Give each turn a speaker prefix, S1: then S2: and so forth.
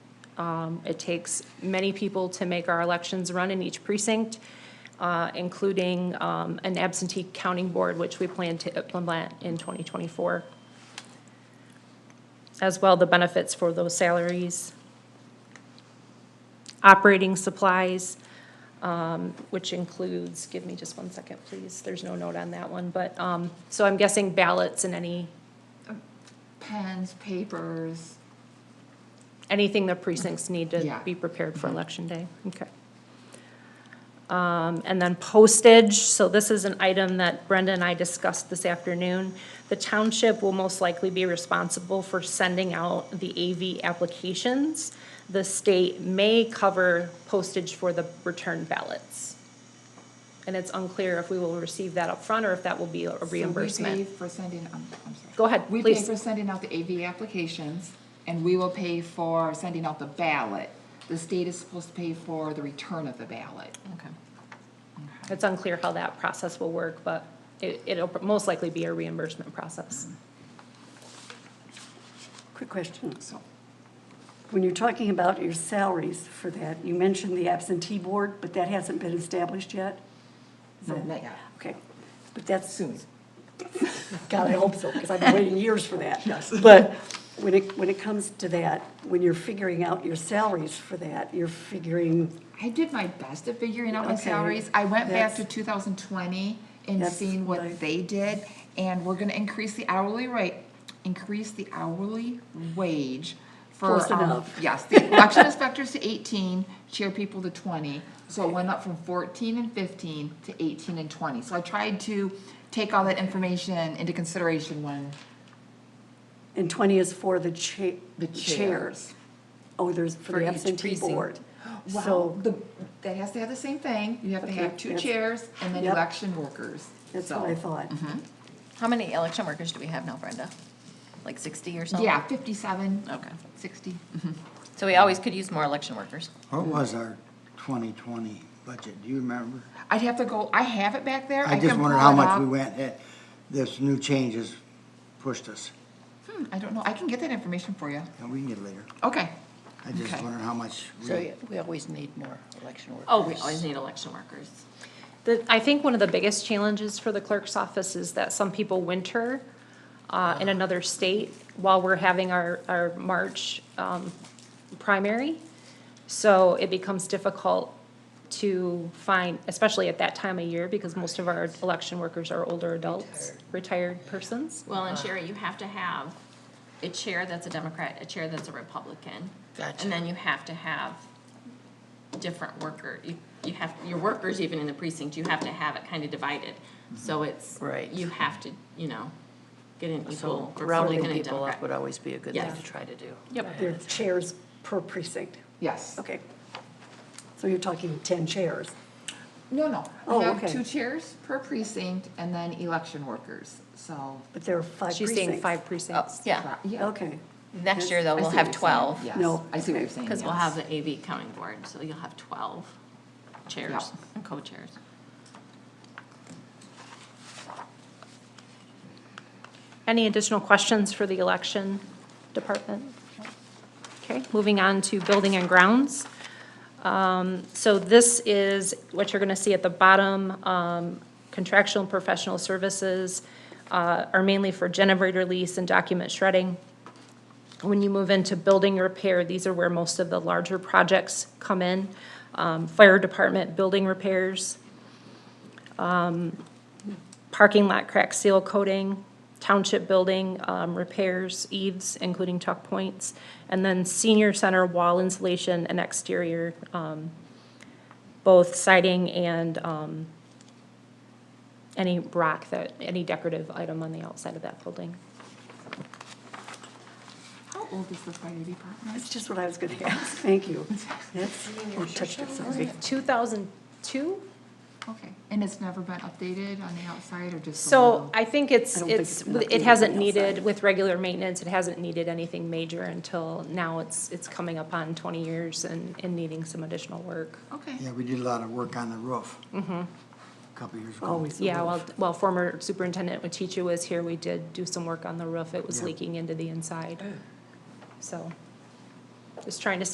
S1: Um, It takes many people to make our elections run in each precinct, uh, including um, an absentee counting board, which we plan to implement in 2024. As well, the benefits for those salaries. Operating supplies, um, which includes, give me just one second, please, there's no note on that one, but, um, so I'm guessing ballots and any,
S2: Pens, papers,
S1: anything the precincts need
S2: Yeah.
S1: to be prepared for Election Day, okay. Um, and then postage, so this is an item that Brenda and I discussed this afternoon. The township will most likely be responsible for sending out the AV applications. The state may cover postage for the return ballots. And it's unclear if we will receive that upfront or if that will be a
S2: So we
S1: reimbursement.
S2: pay for sending, I'm, I'm sorry.
S1: Go ahead,
S2: We pay
S1: please.
S2: for sending out the AV applications, and we will pay for sending out the ballot. The state is supposed to pay for the return of the ballot.
S3: Okay.
S1: It's unclear how that process will work, but it, it'll most likely be a reimbursement process.
S4: Quick question.
S2: So,
S4: When you're talking about your salaries for that, you mentioned the absentee board, but that hasn't been established yet? Is
S2: no,
S4: that-
S2: not yet.
S4: Okay, but that's soon. God, I hope so, because I've been waiting years for that. Yes. But when it, when it comes to that, when you're figuring out your salaries for that, you're figuring,
S2: I did my best at figuring out my
S4: Okay,
S2: salaries. I went back
S4: that's-
S2: to two thousand twenty and
S4: That's
S2: seeing
S4: what I-
S2: what they did, and we're gonna increase the hourly rate, increase the hourly wage for.
S4: Close
S2: um,
S4: enough.
S2: Yes, the election inspectors to eighteen, chair people to twenty, so it went up from fourteen and fifteen to eighteen and twenty. So I tried to take all that information into consideration when,
S4: and 20 is for the cha-
S2: The chairs.
S4: Oh, there's for
S3: For
S4: the
S3: each
S4: absentee
S3: precinct.
S4: board.
S2: wow,
S4: So
S2: the, that has to have the same thing. You have to
S4: Okay,
S2: have two
S4: that's-
S2: chairs and then
S4: Yep.
S2: election workers.
S4: that's
S2: So-
S4: what I thought.
S3: How many election workers do we have now, Brenda? Like 60 or something?
S2: Yeah, fifty-seven.
S3: Oh. Okay.
S2: 60.
S3: So we always could use more election workers.
S5: What was our 2020 budget? Do you remember?
S2: I'd have to go, I have it back there.
S5: I
S2: can
S5: just wondered
S2: pull
S5: how
S2: it
S5: much
S2: up.
S5: we went, that this new changes pushed us.
S2: Hmm, I don't know, I can get that information for you.
S5: And we can get it later.
S2: Okay.
S5: I just
S2: Okay.
S5: wondered how much. we-
S6: So yeah, we always need more election workers.
S3: Oh, we always need election workers.
S1: The, I think one of the biggest challenges for the clerk's office is that some people winter uh, in another state while we're having our, our March um, primary. So it becomes difficult to find, especially at that time of year, because most of our election workers are older adults, retired persons.
S3: Well, and Sherry, you have to have a chair that's a Democrat, a chair that's a Republican.
S6: Gotcha.
S3: And then you have to have different worker, you, you have, your workers even in the precinct, you have to have it kind of divided. So it's.
S6: Mm-hmm. Right.
S3: You have to, you know, get an
S6: So
S3: equal Republican
S6: rounding
S3: and
S6: people up
S3: Democrat.
S6: would always be a good thing
S3: Yeah.
S6: to try to do.
S4: There are chairs per precinct.
S2: Yes.
S4: Okay. So you're talking 10 chairs.
S2: No, no.
S4: Oh,
S2: We have
S4: okay.
S2: two chairs per precinct and then election workers, so.
S4: But there are five
S1: She's saying
S4: precincts.
S1: five precincts.
S3: Oh, Yeah,
S2: Yeah.
S4: Okay,
S3: next year though,
S2: I see
S3: we'll
S2: what
S3: have
S2: you're saying.
S3: 12.
S2: Yes,
S4: No,
S2: I see what
S4: okay.
S2: you're saying.
S3: Because we'll
S2: yes.
S3: have the AV counting board, so you'll have twelve chairs and co-chairs.
S1: Any additional questions for the election department? Okay, moving on to building and grounds. Um, So this is what you're going to see at the bottom. um, Contractual and professional services uh, are mainly for generator lease and document shredding. When you move into building repair, these are where most of the larger projects come in. Um, Fire department, building repairs, parking lot crack seal coating, township building um, repairs, eaves, including tuck points, and then senior center wall insulation and exterior, um, both siding and um, any rock that, any decorative item on the outside of that building.
S2: How old is the fire department?
S4: that's just what I was going to ask, thank you. That's, oh, touched it, sorry.
S1: 2002?
S2: Okay, and it's never been updated on the outside or just? a
S1: So
S2: little?
S1: I think
S4: I
S1: it's,
S4: don't think
S1: it's,
S4: it's been
S1: it
S4: updated
S1: hasn't
S4: on the outside.
S1: needed, with regular maintenance, it hasn't needed anything major until now it's, it's coming up on twenty years and, and needing some additional work.
S2: Okay.
S5: Yeah, we did a lot of work on the roof. A
S2: Mm-hmm.
S5: Couple years ago.
S4: Always the
S1: Yeah,
S4: roof.
S1: while, while former Superintendent Watichia was here, we did do some work on the roof. It was
S5: Yeah.
S1: leaking into the inside. So, just trying to